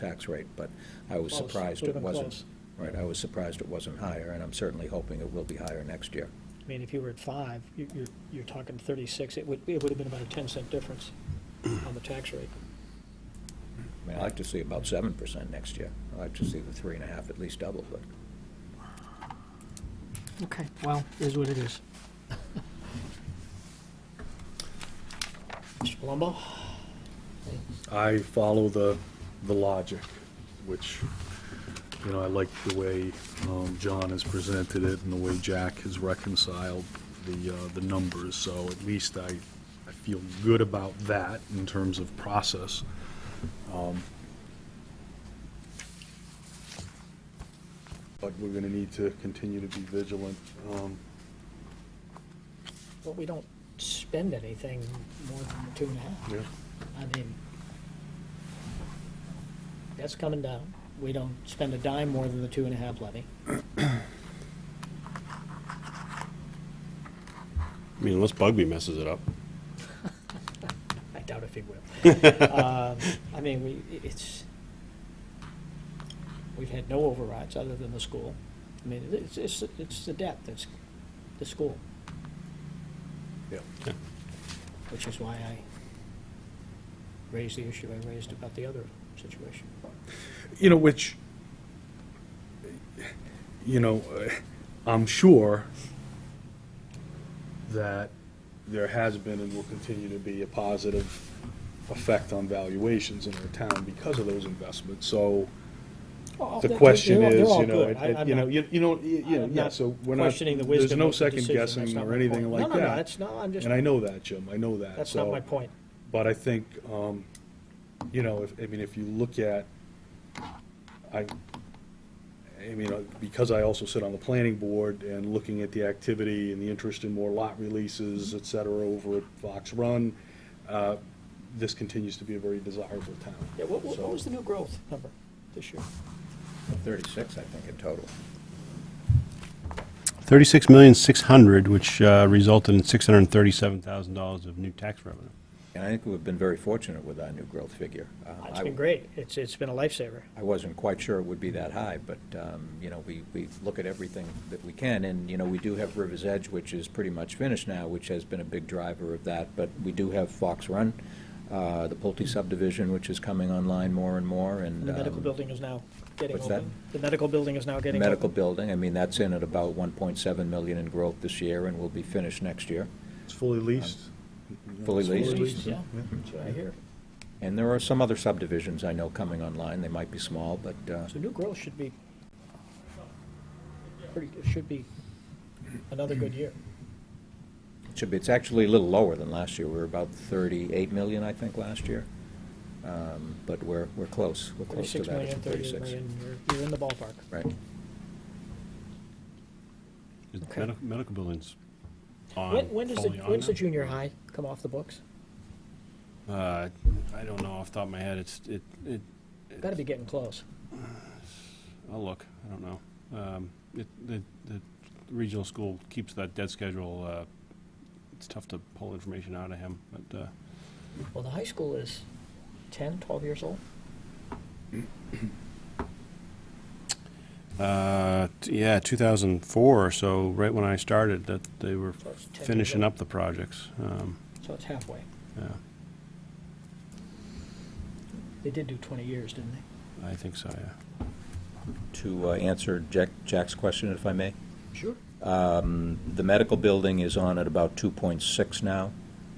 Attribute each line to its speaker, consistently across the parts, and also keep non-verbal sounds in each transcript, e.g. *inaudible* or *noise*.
Speaker 1: tax rate, but I was
Speaker 2: Close,
Speaker 1: surprised
Speaker 2: would've
Speaker 1: it
Speaker 2: been
Speaker 1: wasn't.
Speaker 2: close.
Speaker 1: Right, I was surprised it wasn't higher, and I'm certainly hoping it will be higher next year.
Speaker 2: I mean, if you were at five, you- you're, you're talking thirty-six, it would, it would have been about a ten
Speaker 1: *clears throat*
Speaker 2: cent difference on the tax rate.
Speaker 1: I mean, I'd like to see about seven percent next year. I'd like to see the three and a half at least double, but
Speaker 2: Okay, well, is what it is. Mr. Palumbo?
Speaker 3: I follow the, the logic, which, you know, I like the way um, John has presented it and the way Jack has reconciled the, uh, the numbers, so at least I, I feel good about that in terms of process. Um,
Speaker 4: But we're gonna need to continue to be vigilant. Um,
Speaker 2: Well, we don't spend anything more than two and a half.
Speaker 4: yeah,
Speaker 2: I mean, that's coming down. We don't spend a dime more than the two and a half levy.
Speaker 5: I mean, unless Bugby messes it up.
Speaker 2: I doubt if he will.
Speaker 4: *laughs*
Speaker 2: Um, I mean, we, it's, we've had no overrides other than the school. I mean, it's, it's, it's the debt that's the school,
Speaker 3: Yeah.
Speaker 2: which is why I raised the issue I raised about the other situation.
Speaker 3: You know, which, you know,
Speaker 4: uh,
Speaker 3: I'm sure that
Speaker 4: There has been and will continue to be a positive effect on valuations in our town because of those investments, so
Speaker 2: Oh,
Speaker 4: the question is, you know, it- it- you know, you you know, you you know,
Speaker 2: I'm
Speaker 4: yeah,
Speaker 2: not
Speaker 4: so we're not,
Speaker 2: questioning the
Speaker 4: there's
Speaker 2: wisdom
Speaker 4: no
Speaker 2: of the
Speaker 4: second
Speaker 2: decision. That's
Speaker 4: guessing
Speaker 2: not
Speaker 4: or
Speaker 2: my
Speaker 4: anything
Speaker 2: point. No,
Speaker 4: like
Speaker 2: no, no,
Speaker 4: that.
Speaker 2: that's, no, I'm just,
Speaker 4: And I know that, Jim, I know that,
Speaker 2: that's not
Speaker 4: so-
Speaker 2: my point.
Speaker 4: But I think, um, you know, if, I mean, if you look at, I, I mean, uh, because I also sit on the planning board and looking at the activity and the interest in more lot releases, et cetera, over at Fox Run, uh, this continues to be a very desirable town.
Speaker 2: Yeah, what, what what was
Speaker 4: So-
Speaker 2: the new growth number this year?
Speaker 1: thirty-six, I think, in total.
Speaker 5: Thirty-six million, six hundred, which uh, resulted in six hundred and thirty-seven thousand dollars of new tax revenue.
Speaker 1: And I think we've been very fortunate with our new growth figure. Uh,
Speaker 2: It's
Speaker 1: I-
Speaker 2: been great. It's, it's been a lifesaver.
Speaker 1: I wasn't quite sure it would be that high, but, um, you know, we, we look at everything that we can, and, you know, we do have River's Edge, which is pretty much finished now, which has been a big driver of that, but we do have Fox Run, uh, the Pulte subdivision, which is coming online more and more, and.
Speaker 2: The medical
Speaker 1: um,
Speaker 2: building is now getting
Speaker 1: what's that?
Speaker 2: open. The medical building is now getting
Speaker 1: Medical
Speaker 2: open.
Speaker 1: building, I mean, that's in at about one point seven million in growth this year, and will be finished next year.
Speaker 4: It's fully leased.
Speaker 1: Fully leased.
Speaker 2: Yeah, that's what I hear.
Speaker 1: And there are some other subdivisions I know coming online, they might be small, but, uh,
Speaker 2: So new growth should be, pretty, it should be another good year.
Speaker 1: It Should be, it's actually a little lower than last year. We were about 38 million, I think, last year. Um, But we're, we're close. We're close to
Speaker 2: Thirty-six
Speaker 1: that.
Speaker 2: million,
Speaker 1: at
Speaker 2: thirty-eight million, you're, you're in the ballpark.
Speaker 1: Right.
Speaker 5: The
Speaker 2: Okay.
Speaker 5: medic- Medical buildings on.
Speaker 2: When, when does the,
Speaker 5: fully on
Speaker 2: when's the
Speaker 5: now.
Speaker 2: junior high come off the books?
Speaker 5: Uh, I don't know off the top of my head. It's, it, it,
Speaker 2: Gotta be getting close.
Speaker 5: I'll look. I don't know. Um, It, the, the regional school keeps that debt schedule. uh, It's tough to pull information out of him, but, uh,
Speaker 2: Well, the high school is 10, 12 years old.
Speaker 5: Uh, t- yeah, 2004 or so, right when I started, that they were
Speaker 2: So it's 10 years
Speaker 5: finishing
Speaker 2: old.
Speaker 5: up the projects. Um,
Speaker 2: So it's halfway.
Speaker 5: yeah,
Speaker 2: They did do 20 years, didn't they?
Speaker 5: I think so, yeah.
Speaker 1: To uh, answer Jack, Jack's question, if I may,
Speaker 2: Sure.
Speaker 1: the medical building is on at about 2.6 now,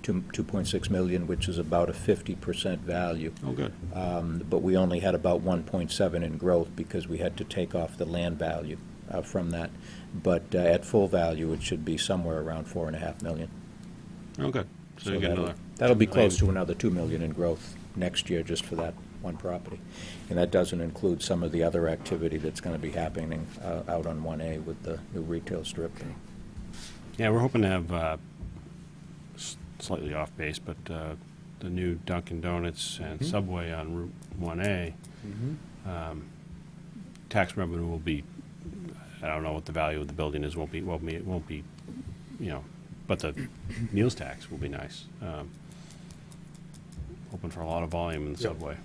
Speaker 1: two- 2.6 million, which is about a 50% value.
Speaker 5: Oh, good.
Speaker 1: Um, But we only had about 1.7 in growth because we had to take off the land value uh, from that. But uh, at full value, it should be somewhere around 4.5 million.
Speaker 5: Oh, good. So
Speaker 1: So
Speaker 5: you get
Speaker 1: that'll-
Speaker 5: another.
Speaker 1: That'll be
Speaker 5: two
Speaker 1: close to
Speaker 5: million.
Speaker 1: another 2 million in growth next year just for that one property. And that doesn't include some of the other activity that's going to be happening uh, out on 1A with the new retail strip. and-
Speaker 5: Yeah, we're hoping to have, uh, s- slightly off base, but, uh, the new Dunkin' Donuts and Subway on Route 1A, um, tax revenue will be, I don't know what the value of the building is, won't be, won't be, it won't be, you know, but the meals tax will be nice. Um, Hoping for a lot of volume in the
Speaker 4: Yep.
Speaker 5: Subway.